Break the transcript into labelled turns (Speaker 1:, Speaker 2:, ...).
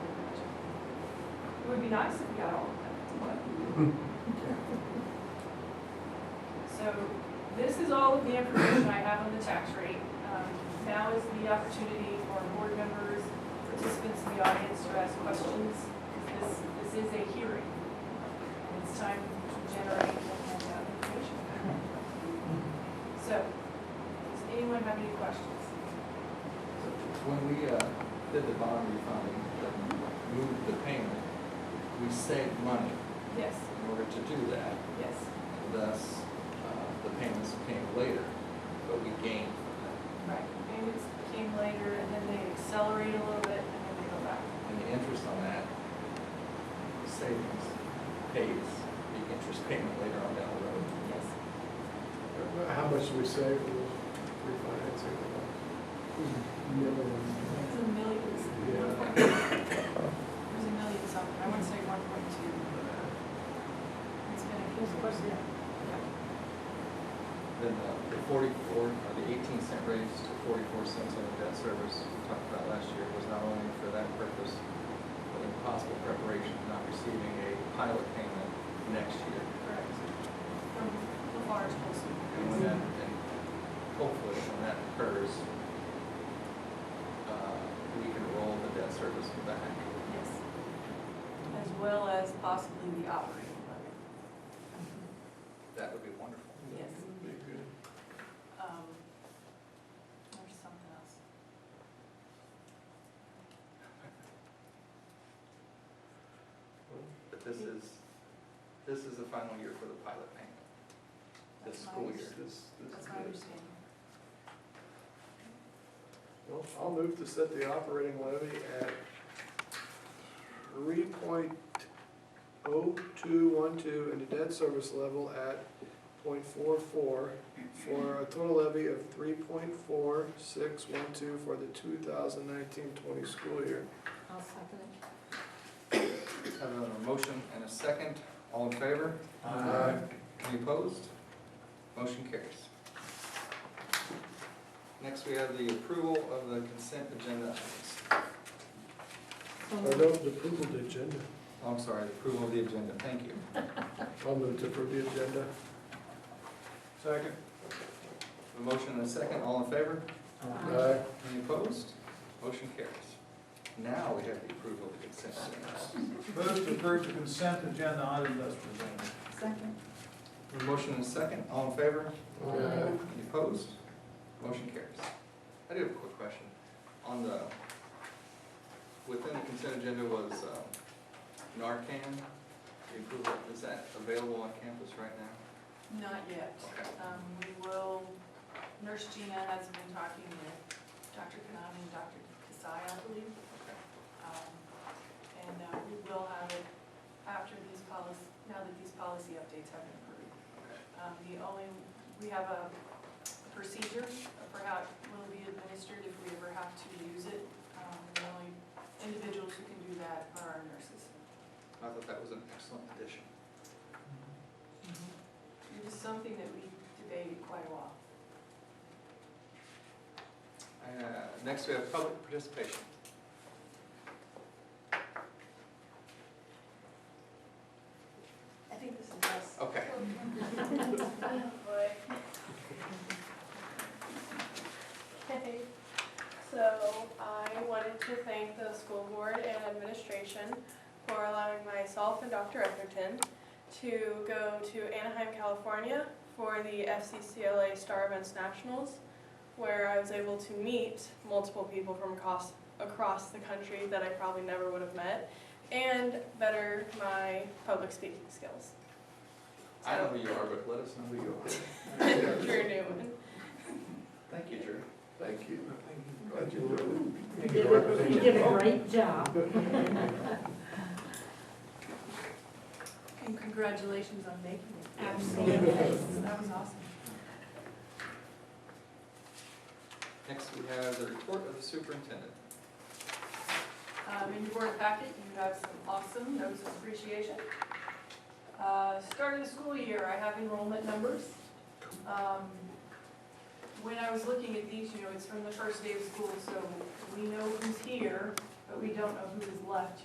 Speaker 1: would be nice if we got all of that, but, so, this is all of the information I have on the tax rate. Um, Now is the opportunity for board members, participants in the audience to ask questions. This, this is a hearing, and it's time to generate and hand out information. So, does anyone have any questions?
Speaker 2: When we uh, did the bond refunding, moved the payment, we saved money
Speaker 1: Yes,
Speaker 2: in order to do that,
Speaker 1: yes,
Speaker 2: thus uh, the payments came later, but we gained from
Speaker 1: right. Payments came later, and then they accelerate a little bit, and then they go back.
Speaker 2: that. And the interest on that savings pays the interest payment later on down the road.
Speaker 1: Yes.
Speaker 3: How much do we save with refinancing? Millions.
Speaker 1: It's a million, it's one
Speaker 3: Yeah.
Speaker 1: point- it was a million something, I would say one point two. It's been a huge question.
Speaker 2: Then uh, the forty-four, or the eighteen cent raise to forty-four cents on the debt service we talked about last year was not only for that purpose, but in possible preparation for not receiving a pilot payment next year.
Speaker 1: Correct. From the large Wilson.
Speaker 2: And when that, and hopefully when that occurs, uh, we can roll the debt service back.
Speaker 1: Yes. As well as possibly the operating budget.
Speaker 2: That would be wonderful.
Speaker 1: Yes. Um, There's something else.
Speaker 2: But this is, this is the final year for the pilot payment, this
Speaker 1: That's my
Speaker 2: school year.
Speaker 1: understanding. That's my understanding.
Speaker 3: Well, I'll move to set the operating levy at three point oh two one two and the debt service level at 0.44 for a total levy of three point four six one two for the 2019-20 school year.
Speaker 1: I'll second it.
Speaker 2: Have a motion and a second. All in favor?
Speaker 3: Aye.
Speaker 2: Any opposed? Motion carries. Next, we have the approval of the consent agenda items.
Speaker 3: Or no, the approval of the agenda.
Speaker 2: Oh, I'm sorry, the approval of the agenda, thank you.
Speaker 3: I'll move to approve the agenda.
Speaker 2: Second. A motion and a second, all in favor?
Speaker 3: Aye.
Speaker 2: Any opposed? Motion carries. Now we have the approval of the consent agenda.
Speaker 4: Move to approve the consent agenda item as presented.
Speaker 1: Second.
Speaker 2: A motion and a second, all in favor?
Speaker 3: Aye.
Speaker 2: Any opposed? Motion carries. I do have a quick question. On the, within the consent agenda was um, Narcan, the approval, is that available on campus right now?
Speaker 1: Not yet.
Speaker 2: Okay.
Speaker 1: Um, we will, Nurse Gina has been talking with Dr. Kanani and Dr. Kasai, I believe.
Speaker 2: Okay.
Speaker 1: Um, And uh, we will have it after these policy, now that these policy updates have been approved. Um, The only, we have a procedure for how it will be administered if we ever have to use it. Um, The only individuals who can do that are our nurses.
Speaker 2: I thought that was an excellent addition.
Speaker 1: It was something that we debated quite a while.
Speaker 2: Uh, Next, we have public participation.
Speaker 1: I think this is us.
Speaker 2: Okay.
Speaker 5: Okay, so I wanted to thank the school board and administration for allowing myself and Dr. Etherton to go to Anaheim, California for the FCCLA Star Events Nationals, where I was able to meet multiple people from across, across the country that I probably never would have met, and better my public speaking skills.
Speaker 2: I know who you are, but let us know who you are.
Speaker 5: Drew Newman.
Speaker 2: Thank you, Drew.
Speaker 3: Thank you. Glad you enjoyed
Speaker 6: You did a- you did a great job.
Speaker 1: And congratulations on making it.
Speaker 6: Absolutely.
Speaker 1: That was awesome.
Speaker 2: Next, we have the report of the superintendent.
Speaker 1: Um, in your board packet, you have some awesome notes of appreciation. Uh, start of the school year, I have enrollment numbers. Um, when I was looking at these, you know, it's from the first day of school, so we know who's here, but we don't know who is left